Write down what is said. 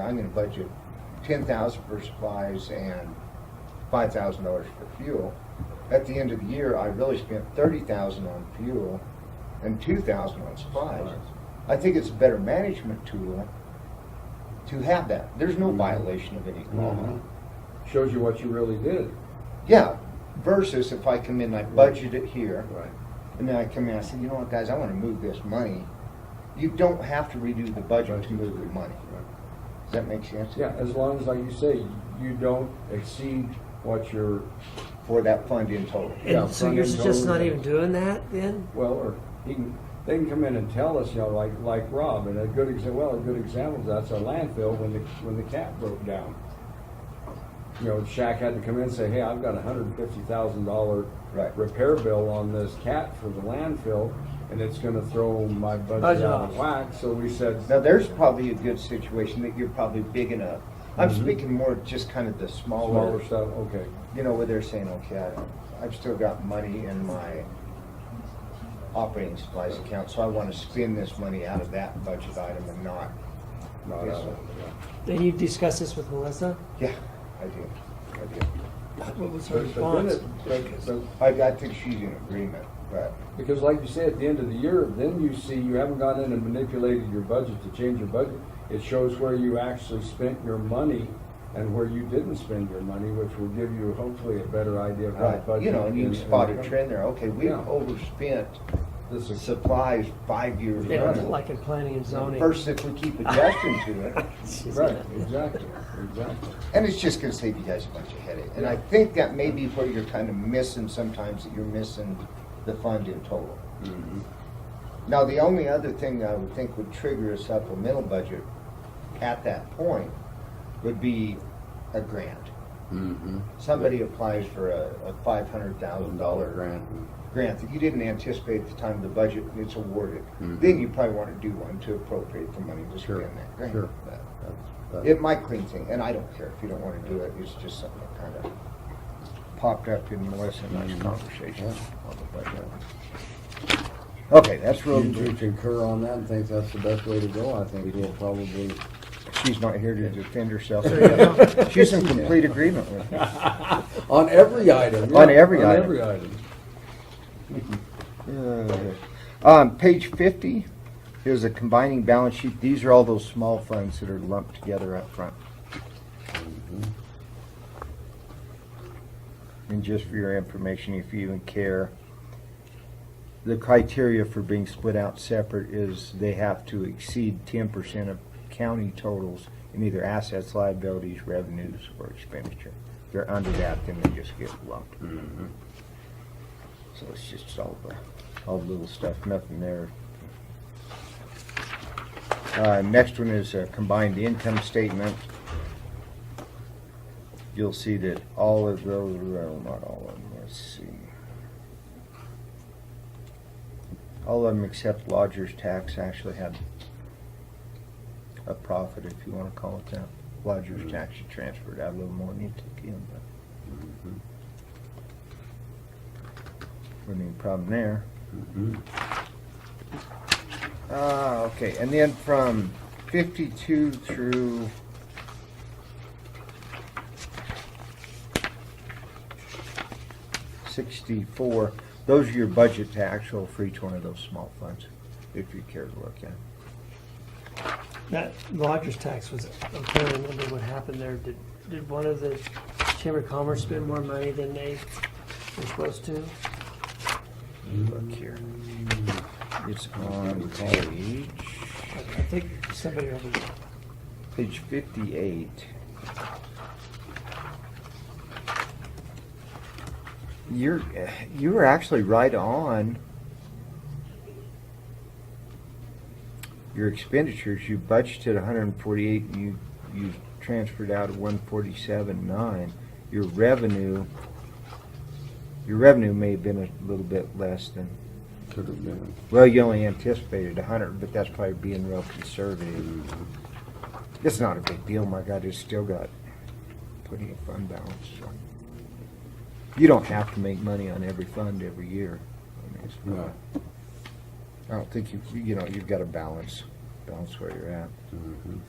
I'm gonna budget ten thousand for supplies and five thousand dollars for fuel. At the end of the year, I really spent thirty thousand on fuel and two thousand on supplies. I think it's a better management tool to have that. There's no violation of any law. Mhm. Shows you what you really did. Yeah, versus if I come in, I budget it here, Right. and then I come in, I say, you know what, guys, I wanna move this money. You don't have to redo the budget to move the money. Does that make sense? Yeah, as long as, like you say, you don't exceed what your, For that fund in total. Yeah, And so front you're end just not loader. even doing that then? well, or he can, they can come in and tell us, you know, like, like Rob, and a good exa, well, a good example, is that's our landfill when the, when the cap broke down. You know, Shaq had to come in and say, hey, I've got a hundred and fifty thousand dollar Right. repair bill on this cap for the landfill, and it's gonna throw my budget Budget out of off. whack, so we said, Now, there's probably a good situation that you're probably big enough. I'm Mhm. speaking more just kind of the smaller, smaller stuff, okay. you know, where they're saying, okay, I- I've still got money in my operating supplies account, so I want to spend this money out of that budget item and not, not Yes, out sir. of- yeah. And you discussed this with Melissa? yeah, I do, I do. What was her But- but then response? it- but- but I, I think she's in agreement, but, Because like you say, at the end of the year, then you see you haven't gone in and manipulated your budget to change your budget. It shows where you actually spent your money and where you didn't spend your money, which will give you hopefully a better idea of how to right, budget. uh, you know, and you can and- spot a and- trend there, okay, we've Yeah. overspent This is- supplies five years Yeah, running. Like in planning and zoning. Versus if we keep adjusting to it. She's Right, gonna- exactly, exactly. And it's just gonna save you guys a bunch of headache. And I think that may be where you're kind of missing sometimes, that you're missing the fund in total. Now, the only other thing I would think would trigger a supplemental budget at that point would be a grant. Somebody applies for a, a five hundred thousand dollar grant that you didn't anticipate at the time of the budget, and it's awarded. Mhm. Then you probably wanna do one to appropriate the money to Sure, spend that grant. sure. But- That's- it might clean thing, and I don't care if you don't wanna do it, it's just something that kinda popped up in Melissa and I's Mhm. conversation. Yeah. on the budget. Okay, that's Do real, Mm-hmm. you- do you concur on that and think that's the best way to go? I think we'll probably, she's not here to defend herself. you She's in complete agreement with me. on every item. On yeah, every On item. every item. Uh, Um, page fifty is a combining balance sheet, these are all those small funds that are lumped together up front. And just for your information, if you even care, the criteria for being split out separate is they have to exceed ten percent of county totals in either assets, liabilities, revenues, or expenditure. If they're under that, then they just get lumped. So it's just all the, all the little stuff, nothing there. Uh, next one is a combined income statement. You'll see that all of those, well, not all of them, let's see. All of them except lodger's tax actually had a profit, if you wanna call it that. Lodger's tax, you transferred out a little more than you took in, but. Wouldn't be a problem there. Ah, okay, and then from fifty-two through sixty-four, those are your budget to actual for each one of those small funds, if you care to look at. it. That lodger's tax was, I'm trying to remember what happened there. Did, did one of the Chamber of Commerce spend more money than they were supposed to? Look here. It's on page, I I think somebody over there. page fifty-eight. You're, you were actually right on your expenditures. You budgeted hundred and forty-eight, and you, you transferred out one forty-seven nine. Your revenue, your revenue may have been a little bit less than Could have been. well, you only anticipated a hundred, but that's probably being real conservative. It's not a big deal, my God, it's still got plenty of fund balance, so. You don't have to make money on every fund every year. I mean, it's No. not- I don't think you, you know, you've got to balance, balance where you're at. Mhm.